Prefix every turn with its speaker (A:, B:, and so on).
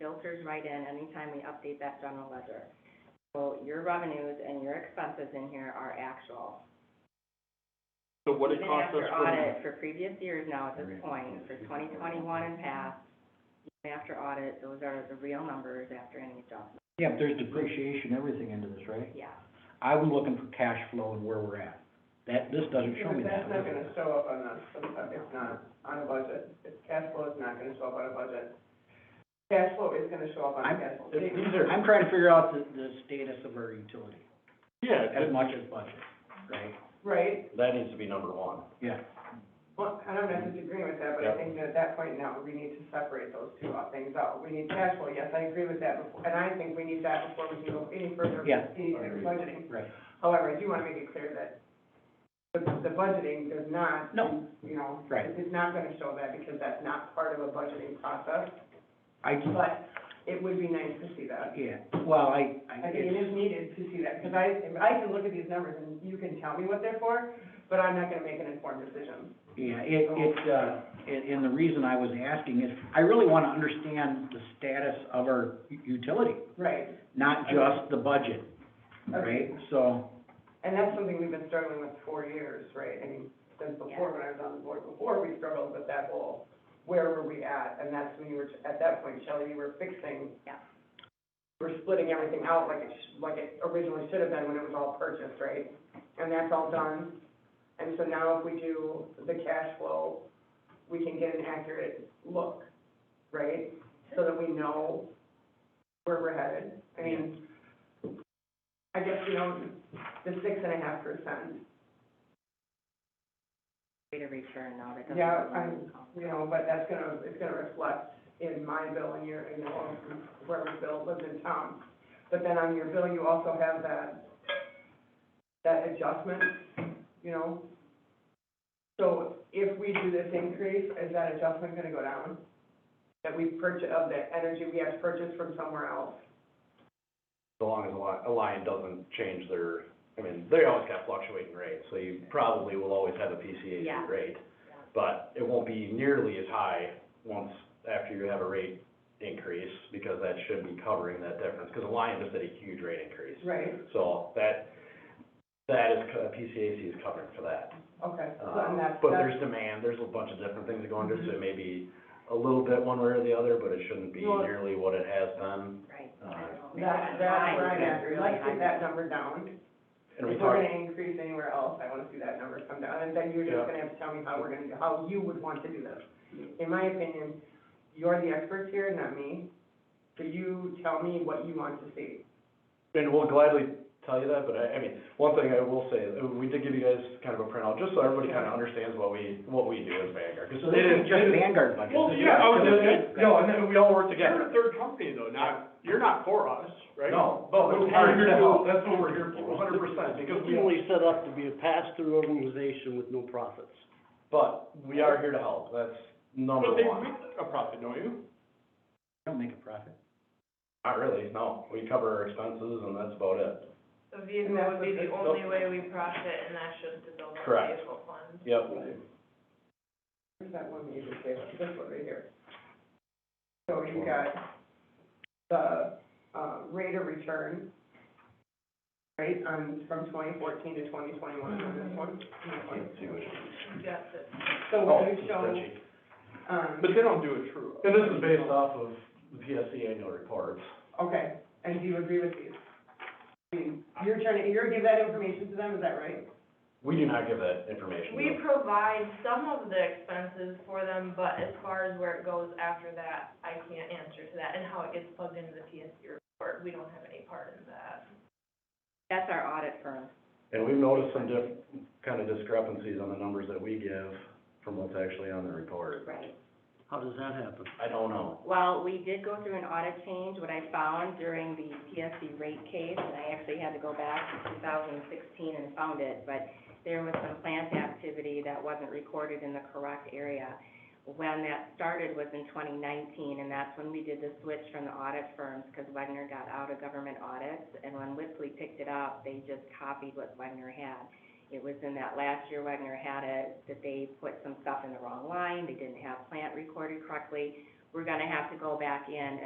A: filters right in anytime we update that general ledger. So your revenues and your expenses in here are actual.
B: So what it costs us
A: Even after
B: for,
A: audit for previous years now at this point, for twenty twenty-one and past, even after audit, those are the real numbers after any adjustment,
C: Yeah, but there's depreciation, everything into this, right?
A: yeah.
C: I was looking for cash flow and where we're at. That, this doesn't show me that.
D: That's not gonna show up on a, it's not on a budget, It's- cash flow is not gonna show up on a budget. Cash flow is gonna show up on a
C: I'm-
D: cash flow
B: if
D: statement.
B: these are,
C: I'm trying to figure out the, the status of our utility,
B: yeah,
C: as
B: it-
C: much as budget, right?
D: Right,
E: That needs to be number one.
C: Yeah,
D: well, and I'm not disagreeing with that, but I
E: Yeah.
D: think that at that point now, we need to separate those two out- things out. We need cash flow, yes, I agree with that, before- and I think we need that before we can go any further. with
C: Yeah.
D: Any type of budgeting.
C: right.
D: However, I do wanna make it clear that the, the budgeting does not.
C: No.
D: You know.
C: Right.
D: It's not gonna show that because that's not part of a budgeting process,
C: I,
D: but it would be nice to see that.
C: yeah, well, I, I,
D: I think it
C: it's,
D: is needed to see that, because I, I can look at these numbers and you can tell me what they're for, but I'm not gonna make an informed decision.
C: yeah, it, it, uh, and, and the reason I was asking is, I really wanna understand the status of our u- utility,
D: Right.
C: not just the budget, right? So,
D: And that's something we've been struggling with for years, right? I mean, since before, when I was on the board before, we struggled with that whole, where were we at? And that's when you were, at that point, Shelley, you were fixing.
A: Yeah.
D: We're splitting everything out like it, sh- like it originally should have been when it was all purchased, right? And that's all done. And so now if we do the cash flow, we can get an accurate look, right? So that we know where we're headed. I mean, I guess, you know, the six and a half percent,
A: Rate of return, no, that doesn't.
D: Yeah, I'm- you know, but that's gonna, it's gonna reflect in my bill and your, you know, whoever's bill lives in town. But then on your bill, you also have that, that adjustment, you know? So if we do this increase, is that adjustment gonna go down? That we purchase, of the energy we have to purchase from somewhere else?
E: So long as Alliant, Alliant doesn't change their, I mean, they always got fluctuating rates, so you probably will always have a
A: Yeah.
E: PCAC rate. But it won't be nearly as high once, after you have a rate increase, because that should be covering that difference, because Alliant just did a huge rate increase.
D: Right.
E: So that, that is, co- PCAC is covering for that.
D: Okay, so
E: Um,
D: and that's,
E: But
D: that's, Mm-hmm.
E: there's demand, there's a bunch of different things that go into it, so it may be a little bit one way or the other, but it shouldn't be
D: Well-
E: nearly what it has been.
A: Right.
E: Uh,
D: that, that's where I'm at,
A: Really
D: let's
A: high.
D: get that number down.
E: And we
D: If we're
E: talked,
D: gonna increase anywhere else, I wanna see that number come down, and then you're
E: Yeah.
D: just gonna have to tell me how we're gonna, do- how you would want to do this. In my opinion, you're the experts here, not me, so you tell me what you want to see.
E: and we'll gladly tell you that, but I, I mean, one thing I will say, uh, we did give you guys kind of a printout, just so everybody kind of understands what we, what we do as Vanguard. 'cause
C: so
E: Oh, it
C: this
E: is-
C: is just
E: it is-
C: Vanguard budget.
B: well,
C: This is
B: yeah, I was
C: utility.
B: gonna say, no, and then we all work together. You're a third company though, not, you're not for us, right?
E: No.
B: But we're
E: We're here
B: here
E: to
B: to,
E: help.
B: that's what we're here for, hundred percent, because we only,
F: Originally set up to be a pass-through organization with no profits.
E: But we are here to help, that's number
B: but they
E: one.
B: make a profit, don't you?
C: We Don't make a profit.
E: Not really, no, we cover our expenses and that's about it.
G: The
D: And
G: vehicle
D: that's
G: would be
D: what
G: the
D: the-
G: only way we profit, and that should dissolve our
E: Correct.
G: vehicle fund.
E: Yep.
D: Where's that one that you just gave us, this one right here? So you got the, uh, rate of return, right, on, from twenty fourteen to twenty twenty-one, on this one?
E: Let's see what it is.
G: You got the
D: So
E: Oh,
D: what
E: it's
D: you
E: a
D: show,
E: spreadsheet.
D: um,
B: But they don't do a true.
E: And this is based off of the PSC annual reports.
D: Okay, and do you agree with these? I mean, You're trying to, you're give that information to them, is that right?
E: We do not give that information.
G: We provide some of the expenses for them, but as far as where it goes after that, I can't answer to that, and how it gets plugged into the PSC report, we don't have any part in that.
A: That's our audit firm.
E: And we've noticed some diff, kind of discrepancies on the numbers that we give from what's actually on the report.
A: Right.
F: How does that happen?
E: I don't know.
A: Well, we did go through an audit change, what I found during the PSC rate case, and I actually had to go back to two thousand sixteen and found it, but there was some plant activity that wasn't recorded in the correct area. When that started was in twenty nineteen, and that's when we did the switch from the audit firms, because Wedner got out of government audits, and when Whipley picked it up, they just copied what Wedner had. It was in that last year Wedner had it, that they put some stuff in the wrong line, they didn't have plant recorded correctly, we're gonna have to go back in and